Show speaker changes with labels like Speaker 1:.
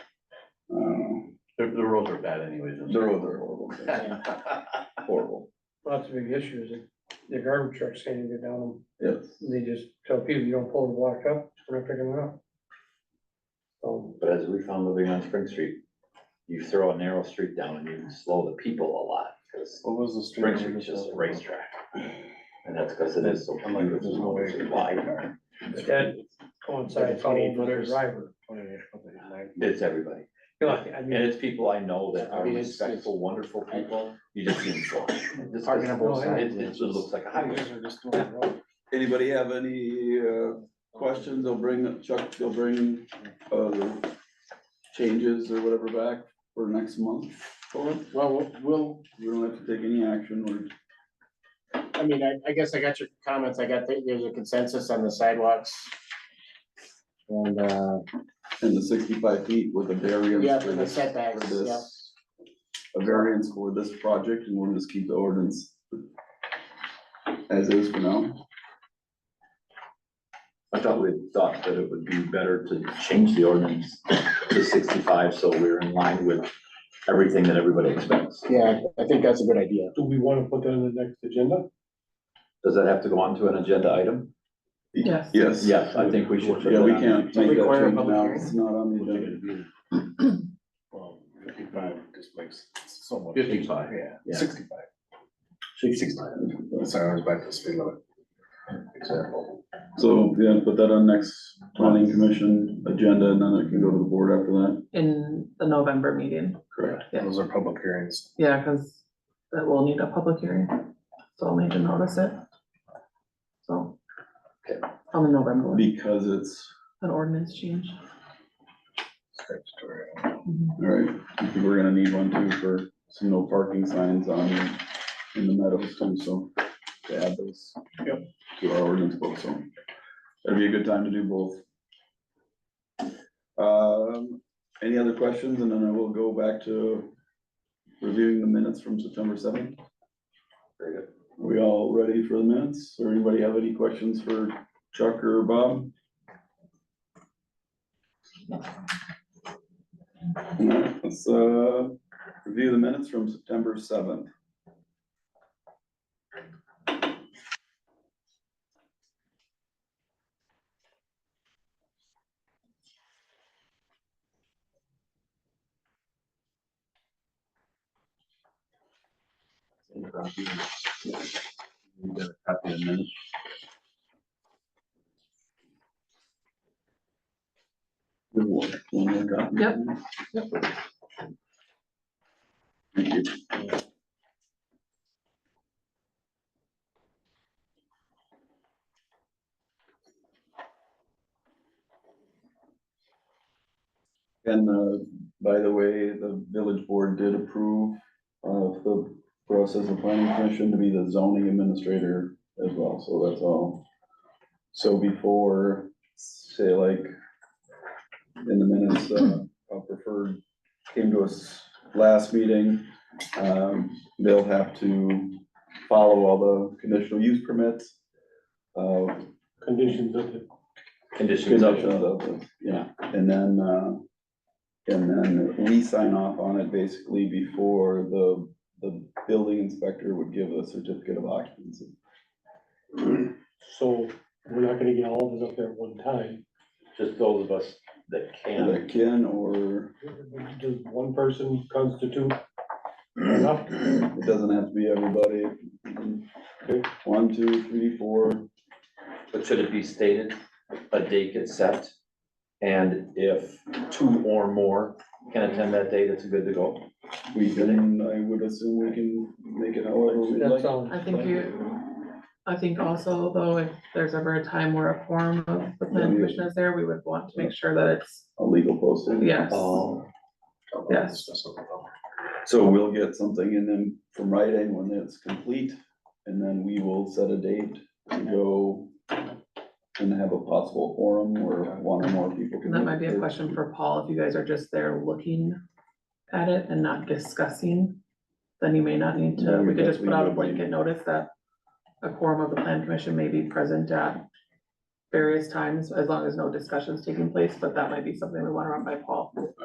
Speaker 1: the roads are bad anyways. and
Speaker 2: Um, The
Speaker 1: so-
Speaker 2: roads are horrible, horrible,
Speaker 3: Lots of big issues. The garbage trucks can't even get down them.
Speaker 2: yes.
Speaker 3: They just tell people, you don't pull the block up, we're not picking it up. So,
Speaker 4: But as we found living on Spring Street, you throw a narrow street down and you slow the people a lot, because
Speaker 5: What was the street?
Speaker 4: Spring
Speaker 5: name
Speaker 4: Street's
Speaker 5: of
Speaker 4: just
Speaker 5: that?
Speaker 4: a racetrack. And that's because it is so
Speaker 5: I'm like, there's no
Speaker 4: beautiful,
Speaker 5: way.
Speaker 4: it's wide,
Speaker 3: but that coincides all with the driver.
Speaker 4: it's everybody.
Speaker 3: You know, I
Speaker 4: And
Speaker 3: mean,
Speaker 4: it's people I know that
Speaker 5: I
Speaker 4: are
Speaker 5: mean, it's-
Speaker 4: respectful, wonderful people, you just see them slow. Just 'cause
Speaker 5: Parking on both
Speaker 4: It,
Speaker 5: sides.
Speaker 4: it just looks like a highway.
Speaker 5: Highways are just doing it wrong.
Speaker 2: Anybody have any, uh, questions? They'll bring, Chuck, they'll bring, uh, the changes or whatever back for next month. for it?
Speaker 5: Well, we'll- we'll,
Speaker 2: We don't have to take any action, we're
Speaker 5: I mean, I, I guess I got your comments. I got, that there's a consensus on the sidewalks. And, uh,
Speaker 2: in the sixty-five feet with a variance.
Speaker 5: yeah,
Speaker 2: for
Speaker 5: for the
Speaker 2: this-
Speaker 5: setbacks,
Speaker 2: for this-
Speaker 5: yeah.
Speaker 2: A variance for this project, and we'll just keep the ordinance as is for now.
Speaker 4: I thought we thought that it would be better to change the ordinance to sixty-five, so we're in line with everything that everybody expects.
Speaker 5: Yeah, I think that's a good idea.
Speaker 6: Do we want to put that on the next agenda?
Speaker 4: Does that have to go on to an agenda item?
Speaker 7: Yes.
Speaker 2: Yes.
Speaker 4: Yes, I think we should. put
Speaker 2: Yeah, we
Speaker 4: that on.
Speaker 2: can't make that
Speaker 5: Require a
Speaker 2: change
Speaker 5: public
Speaker 2: now,
Speaker 5: hearing?
Speaker 2: it's not on the agenda.
Speaker 6: Well, fifty-five just makes so much.
Speaker 1: Fifty-five.
Speaker 6: Yeah,
Speaker 4: Yeah.
Speaker 6: sixty-five. Sixty-five. Sorry, I was back to speed limit. Example.
Speaker 2: So, yeah, put that on next planning commission agenda and then it can go to the board after that.
Speaker 7: In the November meeting,
Speaker 2: Correct.
Speaker 7: Yeah.
Speaker 6: Those are public hearings.
Speaker 7: yeah, because that will need a public hearing, so I'll need to notice it. So.
Speaker 4: Okay.
Speaker 7: On the November, one,
Speaker 2: Because it's,
Speaker 7: an ordinance change.
Speaker 6: Statutory.
Speaker 7: Mhm.
Speaker 2: all right, I think we're gonna need one too for some no parking signs on, in the meadows too, so to add those. Yep. To our ordinance book, so that'd be a good time to do both. Um, any other questions? And then I will go back to reviewing the minutes from September seventh.
Speaker 4: Very good.
Speaker 2: Are we all ready for the minutes? Or anybody have any questions for Chuck or Bob? Alright, Let's, uh, review the minutes from September seventh. Yep.
Speaker 7: Yep.
Speaker 2: Thank you. And, uh, by the way, the village board did approve of the process of planning commission to be the zoning administrator as well, so that's all. So before, say like, in the minutes, uh, Bob preferred came to us last meeting, um, they'll have to follow all the conditional use permits. Uh,
Speaker 6: Conditions of the.
Speaker 4: Conditions of,
Speaker 2: conditions of, it, yeah, and then, uh, and then we sign off on it basically before the, the building inspector would give a certificate of occupancy.
Speaker 6: So we're not gonna get all of this up there at one time.
Speaker 4: just those of us that can.
Speaker 2: Either Ken or,
Speaker 6: Does one person constitute enough?
Speaker 2: it doesn't have to be everybody. One, two, three, four,
Speaker 4: But should it be stated, a date gets set, and if two or more can attend that date, it's good to go?
Speaker 2: we can, I would assume we can make it however we'd
Speaker 3: that
Speaker 2: like.
Speaker 3: sounds.
Speaker 7: I think you, I think also though, if there's ever a time where a forum of the
Speaker 2: Yeah, we-
Speaker 7: plan commission is there, we would want to make sure that it's,
Speaker 2: A legal posting.
Speaker 7: yes.
Speaker 4: Oh,
Speaker 7: Yes.
Speaker 2: So we'll get something and then from Rite Aid when it's complete, and then we will set a date to go and have a possible forum where one or more people can.
Speaker 7: And that might be a
Speaker 2: make their-
Speaker 7: question for Paul, if you guys are just there looking at it and not discussing, then you may not need
Speaker 2: Yeah,
Speaker 7: to,
Speaker 2: we
Speaker 7: we could just
Speaker 2: definitely
Speaker 7: put out a
Speaker 2: would
Speaker 7: blanket
Speaker 2: need-
Speaker 7: notice that a quorum of the plan commission may be present at various times, as long as no discussion's taking place, but that might be something we wanna run by Paul.